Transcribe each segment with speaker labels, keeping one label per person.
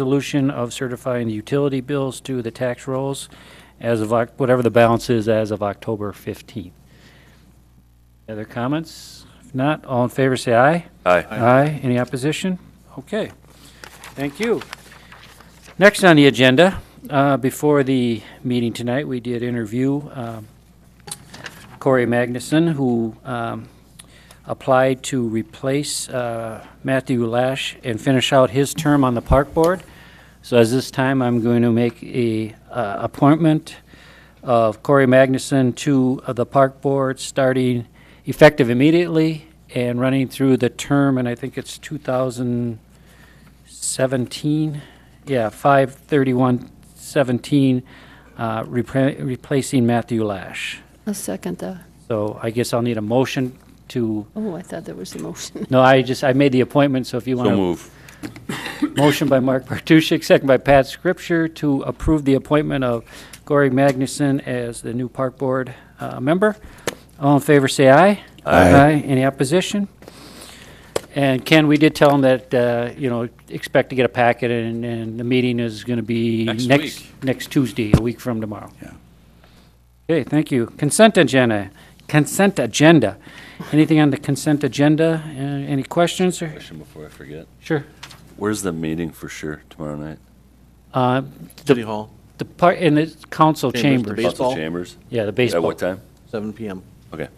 Speaker 1: resolution of certifying the utility bills to the tax rolls as of, Oc- whatever the balance is as of October 15th. Other comments? If not, all in favor, say aye.
Speaker 2: Aye.
Speaker 1: Aye. Any opposition? Okay. Thank you. Next on the agenda, uh, before the meeting tonight, we did interview um, Corey Magnuson, who um, applied to replace uh, Matthew Lash and finish out his term on the Park Board. So as this time, I'm going to make a uh, appointment of Corey Magnuson to uh, the Park Board, starting effective immediately and running through the term, and I think it's 2017, yeah, 5/31/17, uh, repra- replacing Matthew Lash.
Speaker 3: I'll second that.
Speaker 1: So I guess I'll need a motion to,
Speaker 3: Oh, I thought there was a motion.
Speaker 1: no, I just, I made the appointment, so if you want
Speaker 2: So
Speaker 1: to
Speaker 2: move.
Speaker 1: Motion by Mark Bartuszczyk, second by Pat Scripture to approve the appointment of Corey Magnuson as the new Park Board uh, member. All in favor, say aye.
Speaker 2: Aye.
Speaker 1: Any opposition? And Ken, we did tell him that, uh, you know, expect to get a packet, and, and the meeting is going to be
Speaker 2: Next
Speaker 1: next,
Speaker 2: week.
Speaker 1: next Tuesday, a week from tomorrow. Yeah. Okay, thank you. Consent agenda, consent agenda. Anything on the consent agenda? Uh, Any questions, or,
Speaker 2: Question before I forget.
Speaker 1: sure?
Speaker 2: Where's the meeting for sure tomorrow night?
Speaker 1: Uh,
Speaker 4: City Hall,
Speaker 1: The part, in the council
Speaker 4: Chambers, the
Speaker 1: chambers.
Speaker 4: base-
Speaker 2: Council
Speaker 4: Baseball?
Speaker 2: Chambers?
Speaker 1: Yeah, the
Speaker 2: At
Speaker 1: baseball.
Speaker 2: what time?
Speaker 4: seven PM.
Speaker 2: Okay.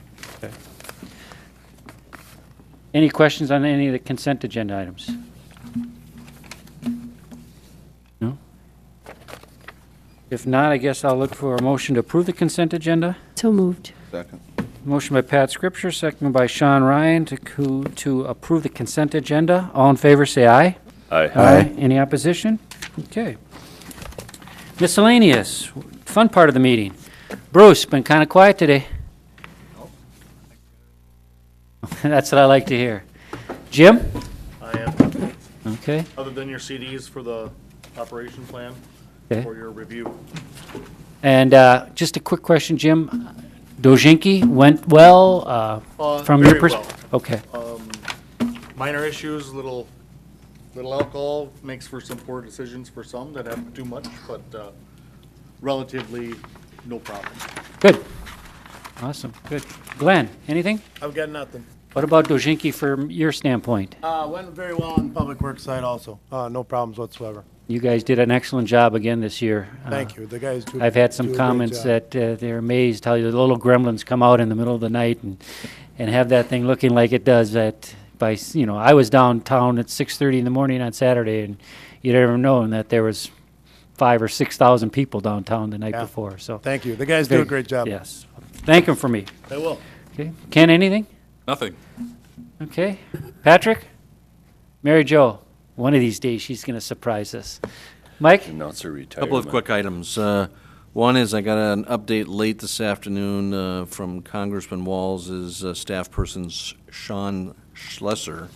Speaker 1: Any questions on any of the consent agenda items? No? If not, I guess I'll look for a motion to approve the consent agenda.
Speaker 3: So moved.
Speaker 1: Motion by Pat Scripture, second by Sean Ryan to, co- to approve the consent agenda. All in favor, say aye.
Speaker 2: Aye.
Speaker 1: Any opposition? Okay. Miscellaneous, fun part of the meeting. Bruce, been kind of quiet today. That's what I like to hear. Jim?
Speaker 5: I am,
Speaker 1: Okay,
Speaker 5: other than your CDs for the operation plan
Speaker 1: Okay.
Speaker 5: for your review.
Speaker 1: and uh, just a quick question, Jim. Dojinki went well uh,
Speaker 5: Uh,
Speaker 1: from your
Speaker 5: very well.
Speaker 1: perspective? Okay,
Speaker 5: Minor issues, little, little alcohol makes for some poor decisions for some that have too much, but uh, relatively no problem.
Speaker 1: good. Awesome, good. Glenn, anything?
Speaker 6: I've got nothing.
Speaker 1: What about Dojinki from your standpoint?
Speaker 6: Uh, went very well on public works side also. Uh, no problems whatsoever.
Speaker 1: You guys did an excellent job again this year. Uh,
Speaker 6: Thank you. The guys do.
Speaker 1: I've had
Speaker 6: do a
Speaker 1: some
Speaker 6: great
Speaker 1: comments
Speaker 6: job.
Speaker 1: that uh, they're amazed how the little gremlins come out in the middle of the night and, and have that thing looking like it does at, by, s- you know, I was downtown at 6:30 in the morning on Saturday, and you'd never known that there was five or 6,000 people downtown the night
Speaker 6: Yeah.
Speaker 1: before, so.
Speaker 6: Thank you. The guys do a
Speaker 1: Very-
Speaker 6: great job.
Speaker 1: Yes. Thank them for me.
Speaker 6: They will.
Speaker 1: Okay. Ken, anything?
Speaker 2: Nothing.
Speaker 1: Okay. Patrick? Mary Jo, one of these days, she's going to surprise us. Mike?
Speaker 2: Announcer retirement.
Speaker 4: Couple of quick items. Uh, One is I got an update late this afternoon uh, from Congressman Walz's uh, staff person S- Sean Schlesser,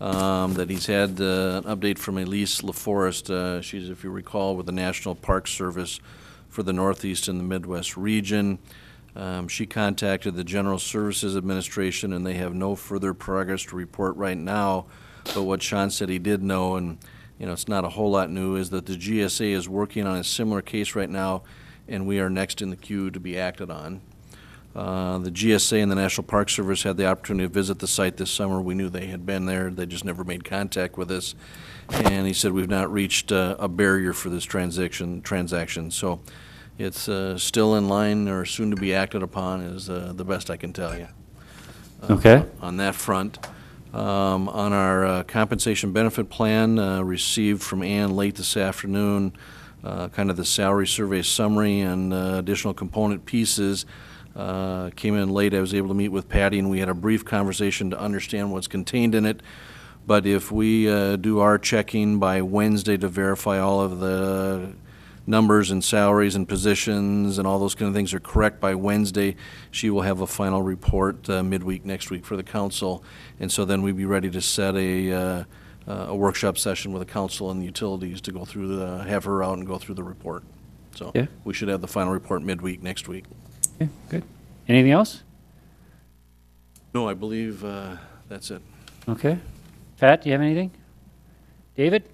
Speaker 4: um, that he's had uh, an update from Elise LaForest. Uh, She's, if you recall, with the National Park Service for the Northeast and the Midwest region. Um, She contacted the General Services Administration, and they have no further progress to report right now. But what Sean said he did know, and, you know, it's not a whole lot new, is that the GSA is working on a similar case right now, and we are next in the queue to be acted on. Uh, The GSA and the National Park Service had the opportunity to visit the site this summer. We knew they had been there, they just never made contact with us. And he said, we've not reached uh, a barrier for this transaction, transaction. So it's uh, still in line or soon to be acted upon is uh, the best I can tell you
Speaker 1: Okay.
Speaker 4: on that front. Um, On our uh, compensation benefit plan, uh, received from Ann late this afternoon, uh, kind of the salary survey summary and uh, additional component pieces. uh, Came in late, I was able to meet with Patty, and we had a brief conversation to understand what's contained in it. But if we uh, do our checking by Wednesday to verify all of the numbers and salaries and positions and all those kind of things are correct by Wednesday, she will have a final report uh, midweek next week for the council. And so then we'd be ready to set a, uh, uh, a workshop session with the council and the utilities to go through the, have her out and go through the report. So
Speaker 1: Yeah.
Speaker 4: we should have the final report midweek next week.
Speaker 1: Okay, good. Anything else?
Speaker 4: No, I believe uh, that's it.
Speaker 1: Okay. Pat, do you have anything? David?